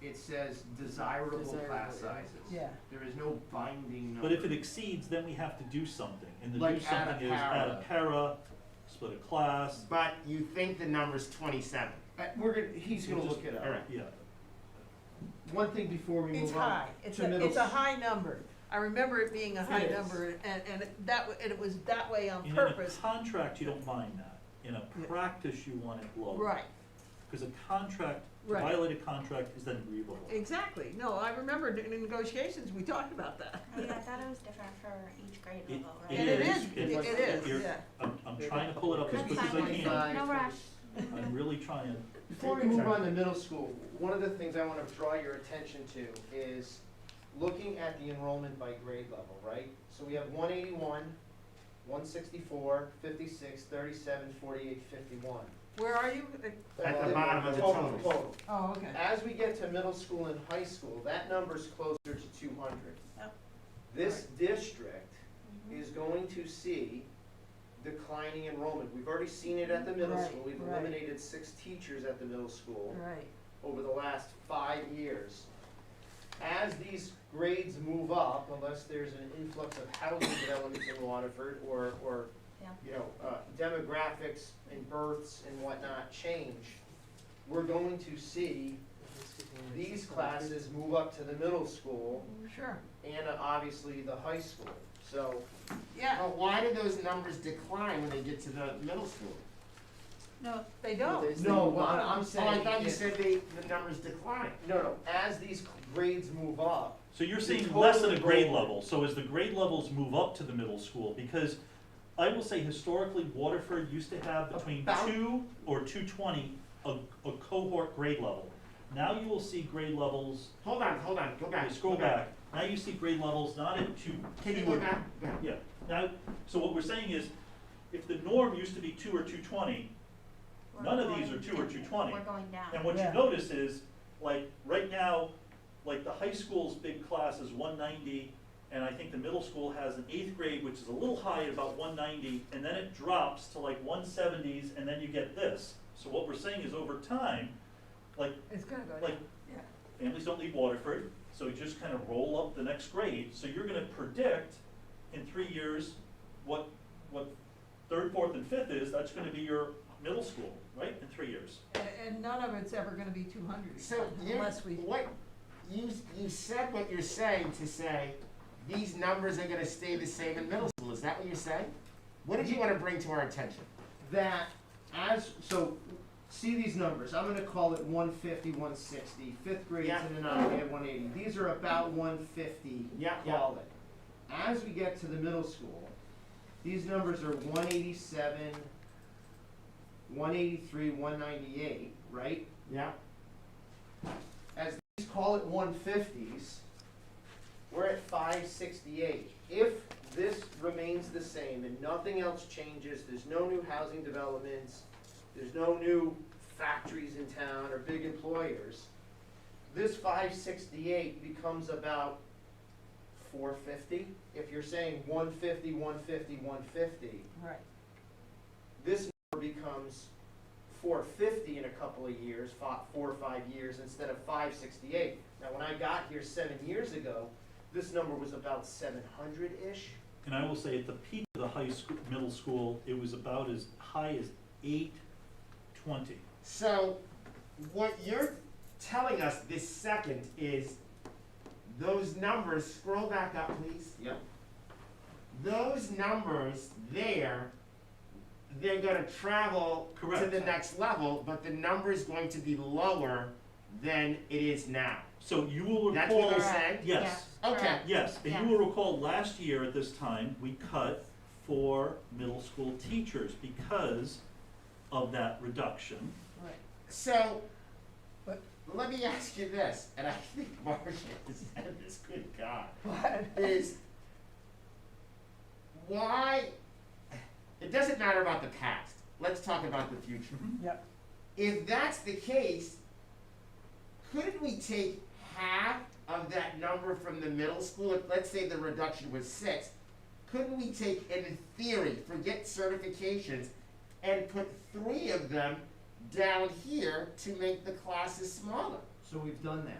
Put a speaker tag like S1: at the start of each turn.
S1: it says desirable
S2: Desirable,
S1: class sizes.
S2: yeah.
S1: There is no binding number.
S3: But if it exceeds, then we have to do something, and the do
S1: Like add a
S3: something is add a
S1: para.
S3: para, split a class,
S4: But you think the number's twenty-seven.
S1: Uh, We're gonna, he's gonna
S3: Just-
S1: look it up.
S4: All right.
S3: yeah.
S1: One thing before we
S2: It's
S1: move on.
S2: high, it's
S1: to
S2: a,
S1: middle
S2: it's a
S1: s-
S2: high number. I remember it being a high
S3: It is.
S2: number and, and that, w- and it was that way on
S3: And in a
S2: purpose.
S3: contract, you don't mind that, in a
S2: Yeah.
S3: practice, you want it low.
S2: Right,
S3: Because a contract, to
S2: Right.
S3: violate a contract is then grievable.
S2: exactly. No, I remember in negotiations, we talked about that.
S5: Oh, yeah, I thought it was different for each grade
S3: It-
S5: level,
S3: it
S5: right?
S2: And it is,
S3: is,
S2: it
S3: it-
S2: it is,
S3: you're-
S2: yeah.
S3: I'm, I'm trying to pull it up as quick as I
S5: That's
S3: can,
S5: fine. No rush.
S3: I'm really trying,
S1: Before we move on to middle school, one of the things I wanna draw your attention to is looking at the enrollment by grade level, right? So we have one eighty-one, one sixty-four, fifty-six, thirty-seven, forty-eight, fifty-one.
S2: Where are you?
S4: At the bottom of the totals.
S1: Total.
S2: Oh, okay.
S1: As we get to middle school and high school, that number's closer to two hundred.
S2: Yep.
S1: This district
S2: Mm-hmm.
S5: Mhm.
S1: is going to see declining enrollment. We've already seen it at the middle
S2: Right,
S1: school. We've
S2: right.
S1: eliminated six teachers at the middle school
S2: Right,
S1: over the last five years. As these grades move up, unless there's an influx of housing developments in Waterford or, or,
S5: Yeah.
S1: you know, uh, demographics and births and whatnot change, we're going to see these classes move up to the middle school
S2: sure,
S1: and uh, obviously the high school. So
S2: yeah.
S4: But why do those numbers decline when they get to the middle school?
S2: No, they don't.
S1: No, what I'm- I'm
S4: Oh, I
S1: saying
S4: thought you
S1: is-
S4: said they, the numbers decline.
S1: No, no, as these grades move up,
S3: so you're
S1: The
S3: seeing less at a
S1: total
S3: grade
S1: enrollment.
S3: level, so as the grade levels move up to the middle school, because I will say historically, Waterford used to have between
S1: About-
S3: two or two twenty, a, a cohort grade level. Now you will see grade levels,
S4: Hold on, hold on, go back.
S3: you scroll
S4: go back.
S3: back, now you see grade levels not at two,
S4: Can you go back? Go.
S3: Yeah, now, so what we're saying is, if the norm used to be two or two twenty,
S5: We're
S3: none of these
S5: going
S3: are two or
S5: down.
S3: 220.
S5: We're going
S3: and
S5: down.
S3: what you
S2: Yeah.
S3: notice is, like, right now, like, the high school's big class is one ninety, and I think the middle school has an eighth grade, which is a little high at about one ninety, and then it drops to like one seventies, and then you get this. So what we're saying is, over time, like,
S2: It's gonna go
S3: like,
S2: down, yeah.
S3: families don't leave Waterford, so you just kind of roll up the next grade. So you're gonna predict in three years what, what third, fourth, and fifth is, that's gonna be your middle school, right, in three years.
S2: And, and none of it's ever gonna be two hundred
S4: So you,
S2: unless we.
S4: what, you, you said what you're saying to say, these numbers are gonna stay the same in middle school, is that what you're saying? What did you wanna bring to our attention?
S1: that as, so, see these numbers, I'm gonna call it 150, 160. Fifth grade's
S4: Yeah.
S1: in the nine, we have one eighty, these are about one fifty,
S4: Yeah, yeah.
S1: call it. As we get to the middle school, these numbers are one eighty-seven, one eighty-three, one ninety-eight, right?
S4: Yeah.
S1: as these call it one fifties, we're at five sixty-eight. If this remains the same and nothing else changes, there's no new housing developments, there's no new factories in town or big employers, this five sixty-eight becomes about four fifty. If you're saying 150, 150, 150,
S2: Right,
S1: this number becomes four fifty in a couple of years, fi- four or five years, instead of five sixty-eight. Now, when I got here seven years ago, this number was about seven hundred-ish.
S3: And I will say, at the peak of the high school, middle school, it was about as high as eight twenty.
S4: So, what you're telling us this second is, those numbers, scroll back up please,
S1: Yep.
S4: those numbers there, they're gonna travel to
S3: Correct.
S4: the next level, but the number's going to be lower than it is now.
S3: So you will
S4: That's what
S3: recall,
S4: you're
S5: Correct.
S4: saying?
S3: yes,
S5: Yeah,
S4: Okay.
S5: correct.
S3: yes, and
S5: Yeah.
S3: you will recall, last year at this time, we cut four middle school teachers because of that reduction.
S2: right.
S4: So,
S2: But-
S4: let me ask you this, and I think Marcia has said this, good God,
S2: But,
S4: is why, it doesn't matter about the past, let's talk about the future.
S2: yep,
S4: If that's the case, couldn't we take half of that number from the middle school, If, let's say the reduction was six, couldn't we take, in theory, forget certifications, and put three of them down here to make the classes smaller?
S1: So we've done that.